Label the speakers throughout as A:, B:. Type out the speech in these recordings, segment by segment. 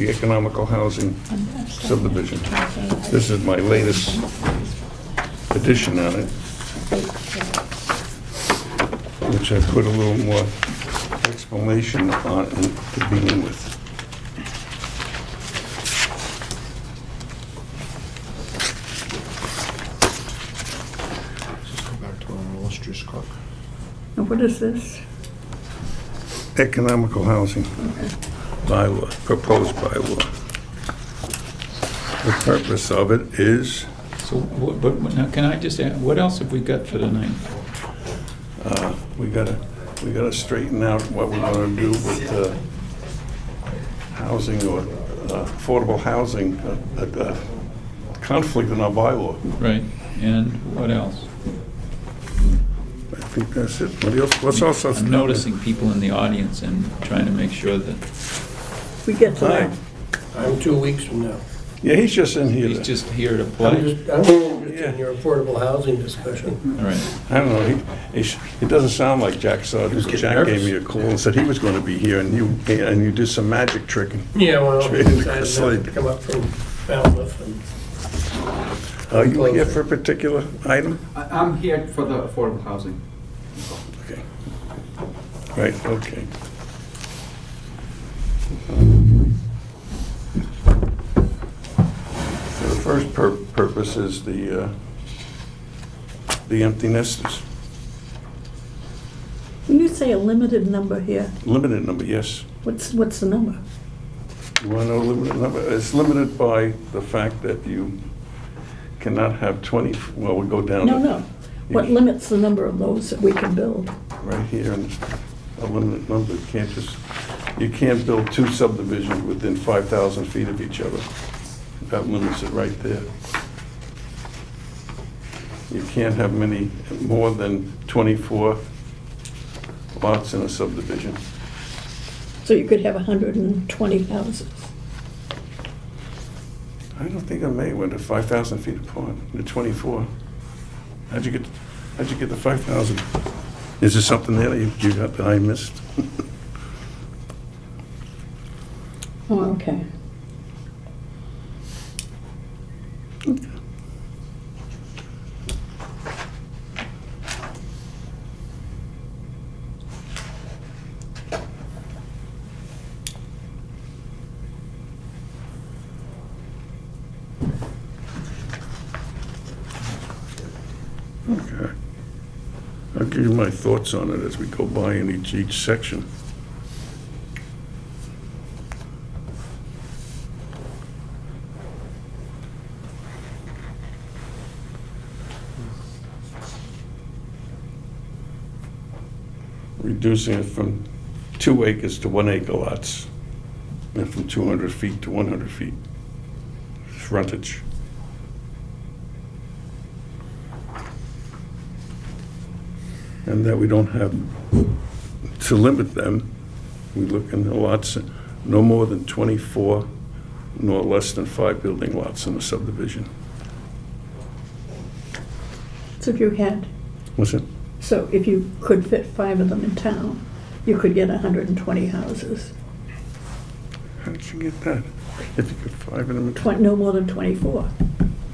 A: the economical housing subdivision. This is my latest edition on it, which I put a little more explanation on it to begin with.
B: Let's go back to our illustrious clerk.
C: And what is this?
A: Economical housing bylaw, proposed bylaw. The purpose of it is,
D: So, what- but, but now, can I just add, what else have we got for tonight?
A: uh, we gotta, we gotta straighten out what we're gonna do with uh, housing or uh, affordable housing, uh, uh, uh, conflict in our bylaw.
D: Right, and what else?
A: I think that's it. What else, what's else?
D: I'm noticing people in the audience and trying to make sure that
C: We get to
A: Hi.
C: that.
E: I'm two weeks from now.
A: Yeah, he's just in here.
D: he's just here to
E: I'm
D: play.
E: just, I'm interested in your affordable housing discussion.
D: All right,
A: I don't know, he- he, sh- it doesn't sound like Jack saw it.
E: getting
A: Jack gave
E: nervous.
A: me a call and said he was gonna be here, and you, and you did some magic tricking.
E: Yeah, well, I
A: It's
E: decided to
A: like-
E: come up from Falmouth and
A: Are you here for a particular item?
F: I- I'm here for the affordable housing.
A: Okay. Right, okay. So The first pur- purpose is the, uh, the empty nesters,
C: When you say a limited number here,
A: limited number, yes.
C: what's, what's the number?
A: You want to know limited number? It's limited by the fact that you cannot have 20, well, we go down.
C: No,
A: to-
C: no. What limits the number of those that we can build?
A: Right here, and a limited number, you can't just, you can't build two subdivisions within 5,000 feet of each other. That limits it right there. You can't have many, more than 24 lots in a subdivision.
C: So you could have 120 houses.
A: I don't think I made one to 5,000 feet apart, to 24. How'd you get, how'd you get the 5,000? Is there something there that you you got that I missed?
C: Oh, okay.
A: Okay. I'll give you my thoughts on it as we go by in each, each section. Reducing it from two acres to one acre lots, and from 200 feet to 100 feet frontage. and that we don't have, to limit them, we look in the lots, no more than 24, nor less than five building lots in a subdivision.
C: So if you had,
A: Was it?
C: so if you could fit five of them in town, you could get 120 houses.
A: How did you get that? If you could five in them,
C: Twen- No more than 24.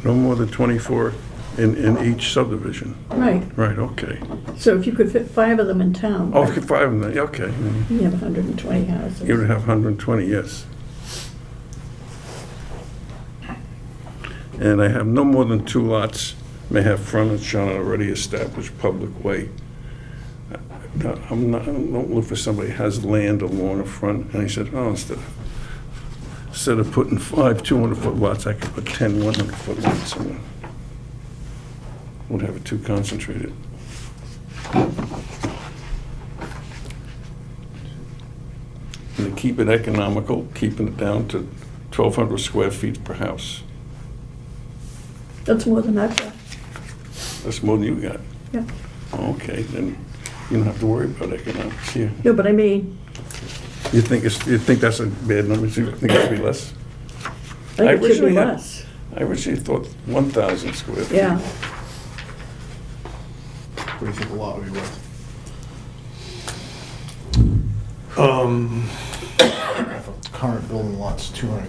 A: no more than 24 in, in each subdivision.
C: Right.
A: Right, okay.
C: So if you could fit five of them in town,
A: Oh, if you could five in there, okay.
C: you have 120 houses.
A: You would have 120, yes. And I have no more than two lots may have frontage on an already established public way. No, I'm not, I don't look for somebody who has land along the front, and he said, oh, instead of, instead of putting five 200-foot lots, I could put 10 100-foot lots somewhere. Would have it too concentrated. And to keep it economical, keeping it down to 1,200 square feet per house.
C: That's more than I've got.
A: That's more than you got. Oh,
C: Yeah.
A: Okay, then you don't have to worry about economics here.
C: No, but I mean,
A: You think it's, you think that's a bad number, you think it should be less?
C: I think it should
A: originally
C: be
A: had-
C: less.
A: I originally thought 1,000 square feet.
C: Yeah.
B: What do you think a lot would be worth? Um, current building lot's 200